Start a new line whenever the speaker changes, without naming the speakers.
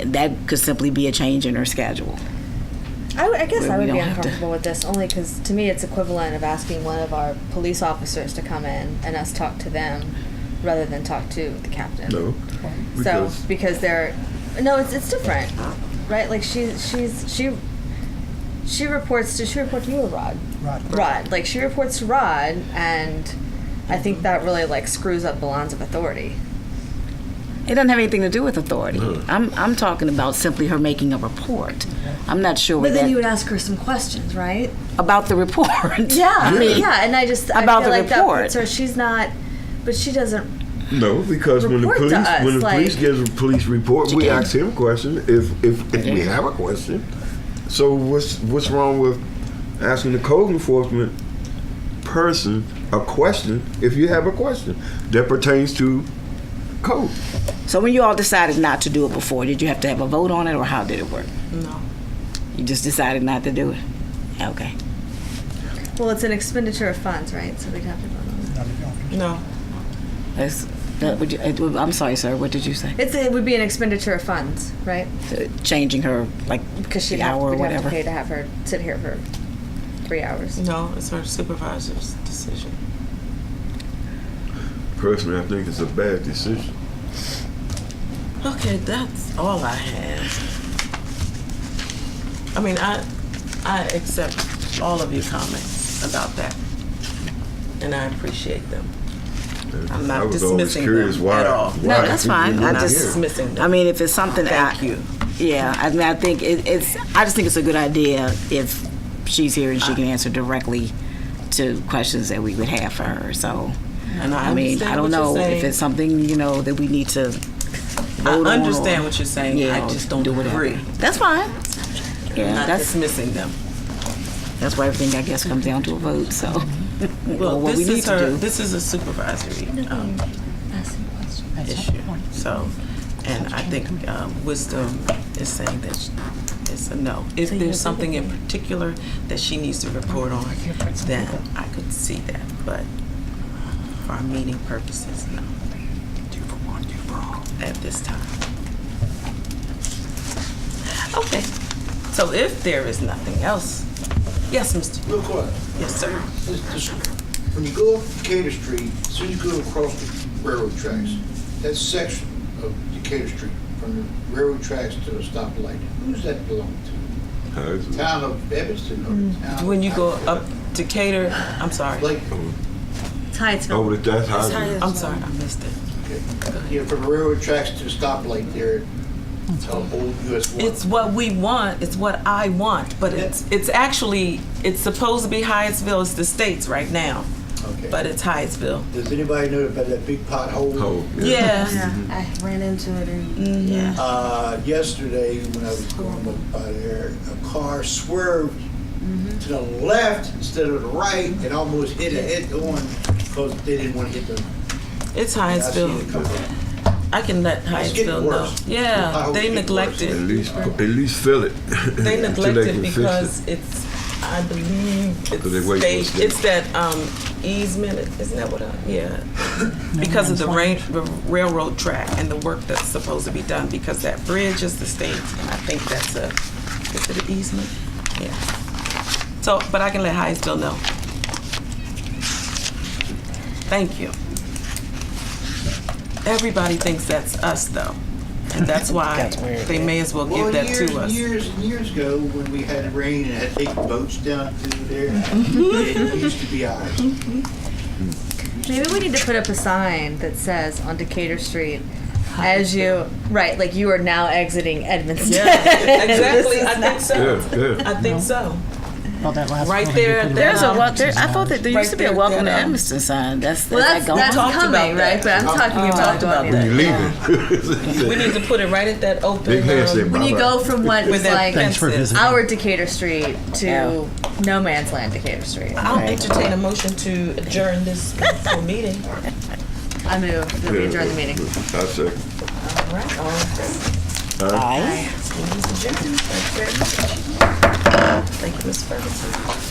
that could simply be a change in her schedule.
I, would- I guess
Where
I
we
would be
don't have to-
uncomfortable with this only because to me it's equivalent of asking one of our police officers to come in and us talk to them rather than talk to the captain.
No.
So
Because
because they're no, it's it's different, right? Like she she's she she reports to she report to you or Rod? Rod. Rod. Like she reports to Rod, and I think that really like screws up the lines of authority.
It doesn't have anything to do with authority. I'm, I'm talking about simply her making a report. I'm not sure that,
ask her some questions, right?
about the report.
Yeah, I mean,
Yeah.
yeah, and I just I
About
feel
the
like that
report.
puts her. She's not, but she doesn't.
no, because when the
Report to
police
us,
when the
like-
police gives a police report, we
Yeah.
ask him questions if if, if we have a question. So what's what's wrong with asking the code enforcement person a question if you have a question that pertains to code?
So when you all decided not to do it before, did you have to have a vote on it or how did it work?
No.
You just decided not to do it? Okay.
Well, it's an expenditure of funds, right? So we'd have to vote on
No.
That's, that would you, it would- I'm sorry, sir. What did you say?
it. It's it would be an expenditure of funds, right?
Uh, Changing her like
Because she'd
the
have,
hour or
we'd have
whatever.
to pay to have her sit here for three hours.
No, it's her supervisor's decision.
Personally, I think it's a bad decision.
Okay, that's all I have. I mean, I I accept all of your comments about that, and I appreciate them. I'm not
I was always
dismissing
curious
them
why,
at all.
why
No, that's
people
fine.
were
I
I'm not
just-
here.
dismissing them.
I mean, if it's something that
Thank
I,
you.
Yeah, I mean, I think it, it's. I just think it's a good idea if she's here and she can answer directly to questions that we would have for her. So,
And I,
mean,
understand
I don't
what you're
know if
saying.
it's something you know that we need to.
I
vote on
understand
or-
what you're saying.
Yeah,
I
or
just don't
do whatever.
agree.
That's fine.
I'm
Yeah,
not
that's
dismissing them.
that's why everything I guess comes down to a vote. So,
Well,
what
this
we need
is
to
her.
do.
This is a supervisory um, issue. So, and I think um, wisdom is saying that sh- it's a no. If there's something in particular that she needs to report on, then I could see that. But for our meeting purposes, no. Two for one, two for all. At this time. Okay. So if there is nothing else, yes, Mr.
Real quick,
Yes, sir.
this, this, when you go up Decatur Street, as soon as you go across the railroad tracks, that section of Decatur Street, from the railroad tracks to the stoplight, who's that belong
Huh, it's-
to? Town of Evanston or the town?
When you go up Decatur, I'm sorry.
Like,
Titusville.
Over the Oh, that's how
I'm sorry, I missed it.
you know, from the railroad tracks to the stoplight there, at, uh, old US one.
It's what we want. It's what I want. But it's it's actually it's supposed to be Hyattsville. It's the states right now,
Okay.
but it's Hyattsville.
Does anybody know about that big pothole?
Oh,
Yeah.
I ran into it and
Mm-hmm.
Yeah.
Uh, yesterday, when I was going up by there, a car swerved
Mm-hmm.
to the left instead of the right and almost hit a head on because they didn't want to hit the.
It's
I seen it
Hyattsville.
come up.
I can let
It's getting
Hyattsville know.
worse.
Yeah,
Potholes
they
get worse.
At
neglected.
least, at least fill it.
They
Until
neglected
can fix it.
because it's I believe
they
it's
wait for
state.
us to-
It's that um, easement. Isn't that what? I, yeah. because of the rain, the railroad track and the work that's supposed to be done because that bridge is the state, and I think that's a, is it an easement? Yeah. So, but I can let Hyattsville know. Thank you. Everybody thinks that's us though, and that's why they may as well
Well,
give that
years,
to us.
years and years ago, when we had rain and had to take boats down through there, it used to be ours.
Maybe we need to put up a sign that says on Decatur Street, as you right, like you are now exiting Edmondson.
Yeah, exactly. I think so.
Yeah, yeah.
I think so.
Well, that last
Right
one,
there,
you put it
there's
on.
a
Well, there, I thought that there used
Right
to be a
there,
welcome to
that, um,
Edmiston sign. That's
Well,
is
that's,
that
that's
We talked
coming,
about that.
right? But I'm talking about
talked about
doing
that.
it.
You
We
leaving?
need to put it right at that open.
Big hand
um,
say
When you
bye-bye.
go from what
With
is
that
like
Thanks for
fences.
visiting.
our Decatur Street to
Yeah.
no man's land Decatur Street.
I'll entertain a motion to adjourn this full meeting. All
I move that we adjourn the meeting.
I second.
right, all in favor?
Aye.
Meeting's adjourned. Thank you very much. Thank you, Ms. Ferguson.